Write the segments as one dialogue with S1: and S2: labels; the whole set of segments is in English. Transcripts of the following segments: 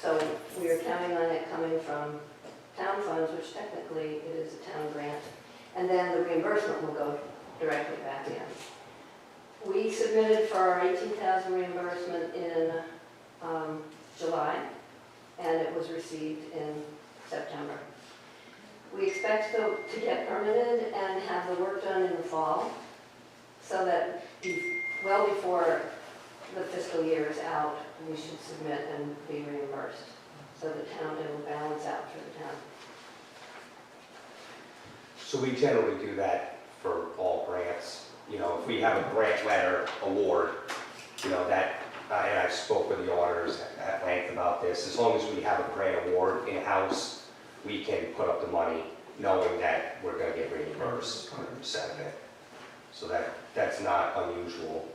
S1: So we are counting on it coming from town funds, which technically it is a town grant. And then the reimbursement will go directly back in. We submitted for our 18,000 reimbursement in um, July, and it was received in September. We expect to to get permitted and have the work done in the fall, so that be- well before the fiscal year is out, we should submit and be reimbursed. So the town, it will balance out for the town.
S2: So we generally do that for all grants. You know, if we have a grant letter award, you know, that, I- and I spoke with the auditors at length about this, as long as we have a grant award in-house, we can put up the money knowing that we're gonna get reimbursed hundred percent of it. So that, that's not unusual.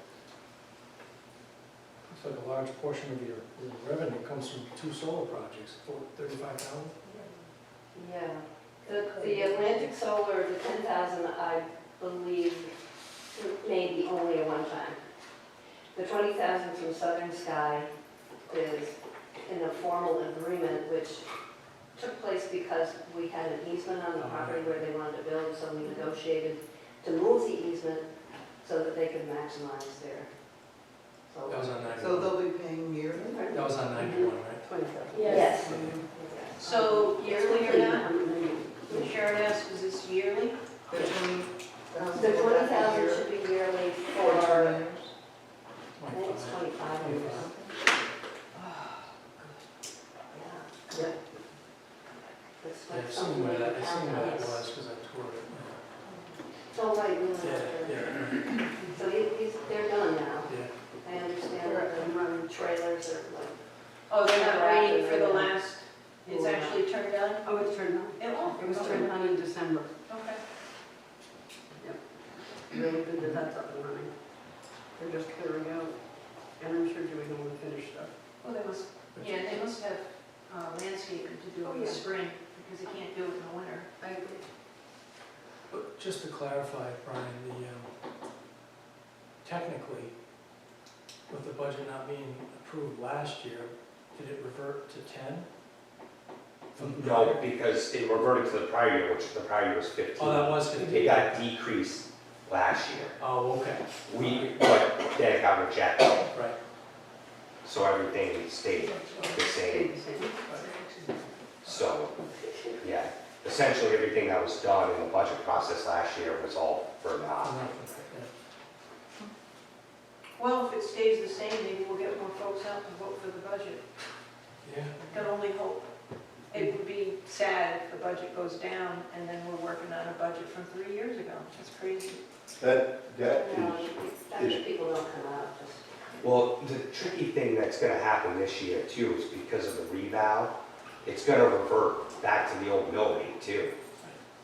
S3: Looks like a large portion of your your revenue comes from two solar projects, four- 35,000?
S1: Yeah, the, the Atlantic Solar, the ten thousand, I believe, may be only a one-time. The twenty thousand from Southern Sky is in a formal agreement, which took place because we had an easement on the property where they wanted to build, so we negotiated to move the easement so that they could maximize their
S3: That was
S1: solar.
S3: on 91.
S4: So they'll be paying yearly?
S3: That was on 91, right?
S4: Twenty-seven.
S1: Yes.
S5: So yearly or not?
S1: not?
S5: Sharon asked, is this yearly?
S4: The twenty thousand.
S1: The twenty thousand should be yearly for, I think it's
S3: 25.
S1: twenty-five years.
S5: Oh,
S1: Yeah. Yep. That's
S3: Yeah,
S1: like
S3: I've seen where
S1: something
S3: that,
S1: they
S3: I've seen where that
S1: count on.
S3: was, because I toured it.
S1: It's all right, you
S3: Yeah,
S1: know,
S3: yeah,
S1: so he- he's, they're done now.
S3: yeah.
S1: I understand that the trailers are like.
S5: Oh, they're not waiting for the last, it's actually turned on?
S6: Oh, it's turned on.
S5: It won't.
S6: It was turned on in December.
S5: Okay.
S6: They opened it up up and running. They're just clearing out, and I'm sure doing all the finished stuff.
S5: Well, they must, yeah, they must have uh, landscaping to do
S6: Oh,
S5: in the
S6: yeah.
S5: spring, because they can't do it in the winter.
S6: I agree.
S3: But just to clarify, Brian, the, um, technically, with the budget not being approved last year, did it revert to 10? From the
S2: No,
S3: prior-
S2: because it reverted to the prior year, which the prior year was fifteen.
S3: Oh, that was
S2: It
S3: 15.
S2: got decreased last year.
S3: Oh, okay,
S2: We, but then it got rejected.
S3: right.
S2: So everything stayed the same,
S6: Stayed the same.
S2: so, yeah. Essentially, everything that was done in the budget process last year was all for naught.
S3: Nothing, yeah.
S5: Well, if it stays the same, maybe we'll get more folks out to vote for the budget.
S3: Yeah,
S5: Can only hope. It would be sad if the budget goes down, and then we're working on a budget from three years ago. That's crazy.
S7: That, that
S1: No,
S7: is,
S1: that's if people don't come out, just,
S2: Well, the tricky thing that's gonna happen this year too is because of the revow, it's gonna revert back to the old mill rate too.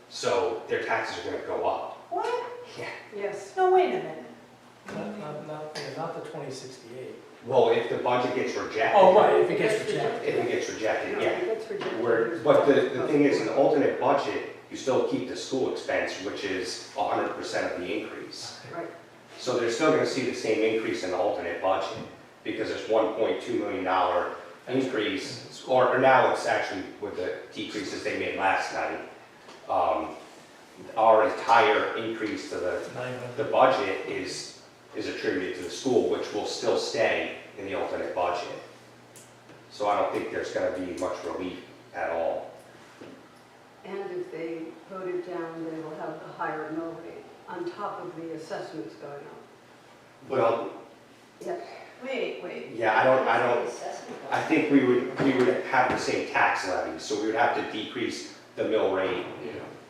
S2: So their taxes are gonna go up.
S5: What?
S2: Yeah.
S6: Yes.
S5: No, wait a minute.
S3: not, not, not, yeah, not the 2068.
S2: Well, if the budget gets rejected.
S3: Oh, right, if it gets rejected.
S2: If it gets rejected, yeah.
S6: That's ridiculous.
S2: Where, but the, the thing is, in the alternate budget, you still keep the school expense, which is hundred percent of the increase.
S6: Right.
S2: So they're still gonna see the same increase in the alternate budget, because it's one point two million dollar increase, or, or now it's actually with the decreases they made last night. Um, our entire increase to the, the
S3: 900.
S2: budget is, is attributed to the school, which will still stay in the alternate budget. So I don't think there's gonna be much relief at all.
S6: And if they vote it down, they will have the higher mill rate on top of the assessments going up.
S2: Well,
S6: Yes.
S5: Wait, wait.
S2: yeah, I don't, I
S1: the
S2: don't,
S1: assessment.
S2: I think we would, we would have the same tax levy, so we would have to decrease the mill rate.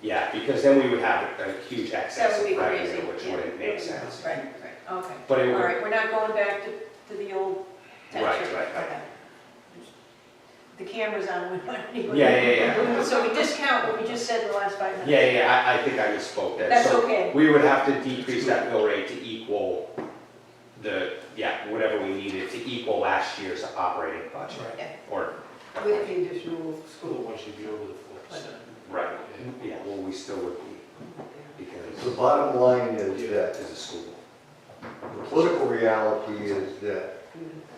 S2: Yeah, because then we would have a huge
S5: That
S2: excess
S5: would be
S2: of
S5: crazy.
S2: revenue, which
S5: yeah.
S2: wouldn't make sense.
S5: Right, right, okay.
S2: But it
S5: All
S2: would,
S5: right, we're not going back to, to the old
S2: Right,
S5: tax rate.
S2: right, right.
S5: Okay. The camera's on, we want anyone.
S2: yeah, yeah, yeah.
S5: So we discount what we just said in the last five minutes.
S2: Yeah, yeah, I, I think I misspoke there.
S5: That's
S2: So
S5: okay.
S2: We would have to decrease that mill rate to equal the, yeah, whatever we needed to equal last year's operating budget,
S3: Right.
S2: or,
S6: With the additional
S8: School wants you to be over the four percent.
S2: right, yeah, well, we still would be,
S7: the
S2: because
S7: bottom line is
S2: it's
S7: that
S2: a school.
S7: the political reality is that
S6: students.